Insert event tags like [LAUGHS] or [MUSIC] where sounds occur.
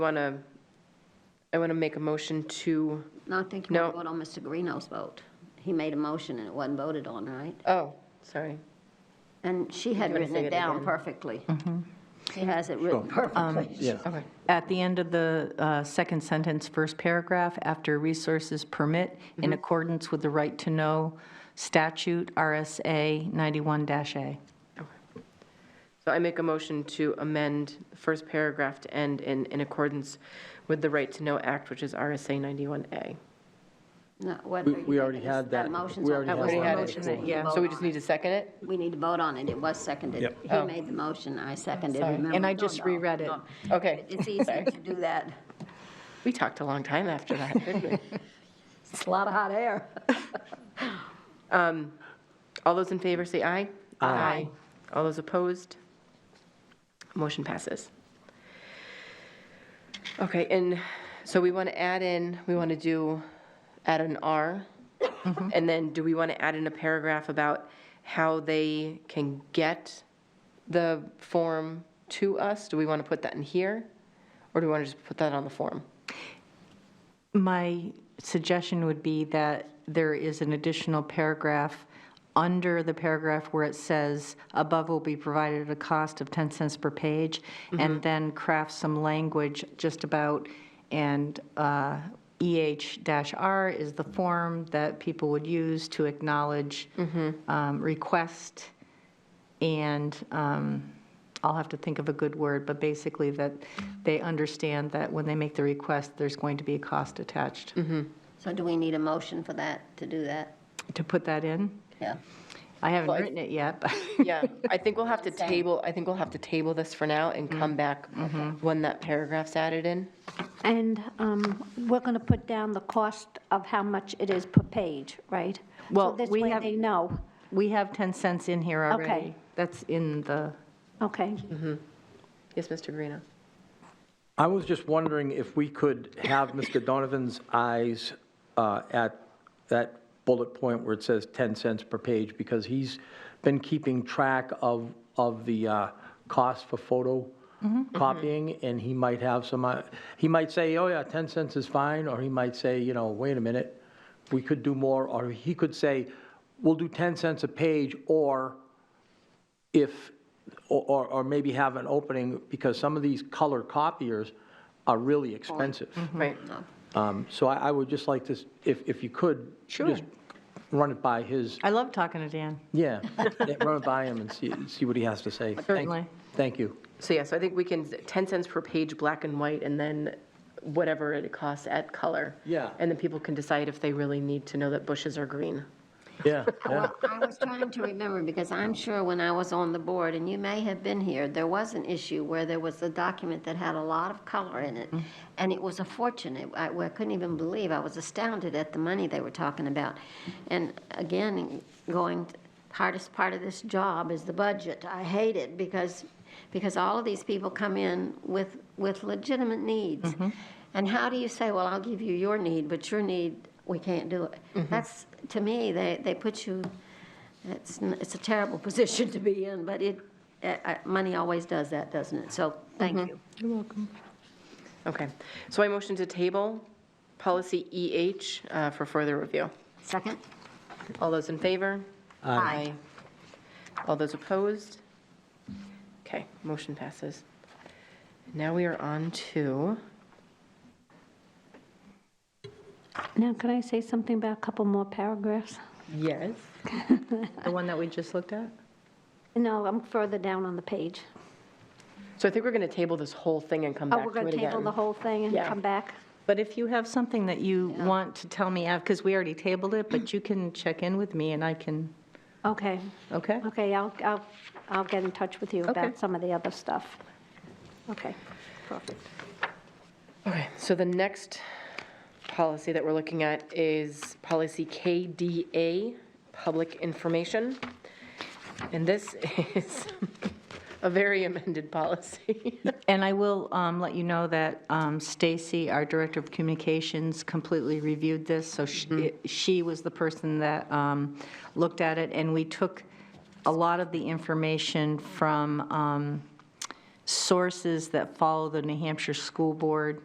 Want to, I want to make a motion to, No, I think you want No. to vote on Mr. Guarino's vote. He made a motion and it wasn't voted on, right? oh, sorry. And she had wanna written say it it down again? perfectly. Mm-hmm. She has it written perfectly. Yeah. Okay. At the end of the uh, second sentence, first paragraph, after resources permit, in accordance with the right to know statute, RSA 91-A. So I make a motion to amend the first paragraph to end in, in accordance with the Right to Know Act, which is RSA 91A. No, what We- are you we already making? had That that. motion's We on already the had Already floor. had Motion's on it. the Yeah, floor. so we just need to second it? We need to vote on it. It was seconded. Yep. He made the motion, I seconded. Sorry. Remember, And I no, just no, reread it. no. Okay. It's easy to do that. We talked a long time after that, didn't we? It's a lot of hot air. All those in favor say aye. Aye. All those opposed? Motion passes. Okay, and so we want to add in, we want to do, add an R. And then do we want to add in a paragraph about how they can get the form to us? Do we want to put that in here? Or do we want to just put that on the form? My suggestion would be that there is an additional paragraph under the paragraph where it says, "Above will be provided at a cost of 10 cents per page," and then craft some language just about, and uh, EH-R is the form that people would use to acknowledge um, request, and um, I'll have to think of a good word, but basically that they understand that when they make the request, there's going to be a cost attached. So do we need a motion for that, to do that? To put that in? Yeah. I haven't Well, I- written it yet, but Yeah, I think we'll have to Same. table, I think we'll have to table this for now and come back when that paragraph's added in. And um, we're going to put down the cost of how much it is per page, right? So Well, we This way have- they know. [LAUGHS] we have 10 cents in here Okay. already. That's in the, Okay. Yes, Mr. Greeno? I was just wondering if we could have Mr. Donovan's eyes uh, at that bullet point where it says 10 cents per page, because he's been keeping track of, of the uh, cost for photo copying, and he might have some, uh, he might say, oh yeah, 10 cents is fine, or he might say, you know, wait a minute, we could do more, or he could say, we'll do 10 cents a page, or if, or- or, or maybe have an opening, because some of these color copiers are really expensive. Right. Um, So I, I would just like to, s- if, if you could. just Run it by his, I love talking to Dan. yeah, yeah, run it by him and see, see what he has to say. Thank- Certainly. Thank you. So yeah, so I think we can, 10 cents per page, black and white, and then whatever it costs at color. Yeah. And then people can decide if they really need to know that bushes are green. Yeah, yeah. I was trying to remember, because I'm sure when I was on the board, and you may have been here, there was an issue where there was a document that had a lot of color in it, and it was a fortune. It- I I couldn't even believe, I was astounded at the money they were talking about. And again, going, hardest part of this job is the budget. I hate it, because, because all of these people come in with, with legitimate needs. And how do you say, well, I'll give you your need, but your need, we can't do it? That's, to me, they, they put you, it's, n- it's a terrible [LAUGHS] position to be in, but it, uh, uh, money always does that, doesn't it? So, thank you. Okay, so I motion to table policy EH uh, for further review. Second? All those in favor? Aye. All those opposed? Okay, motion passes. Now we are on to, Now, can I say something about a couple more paragraphs? yes, The one that we just looked at? No, I'm further down on the page. so I think we're going to table this whole thing and come Oh, back to we're it again. going to table the whole thing and Yeah. come back? But if you have something that you want to tell me, because we already tabled it, but you can check in with me and I can, Okay. okay? Okay, I'll, I'll, I'll get in touch with you Okay. about some of the other stuff. Okay. Okay, so the next policy that we're looking at is policy KDA, public information. And this [LAUGHS] is a very amended policy. And I will um, let you know that um, Stacy, our Director of Communications, completely reviewed this, so she- she was the person that um, looked at it, and we took a lot of the information from um, sources that follow the New Hampshire School Board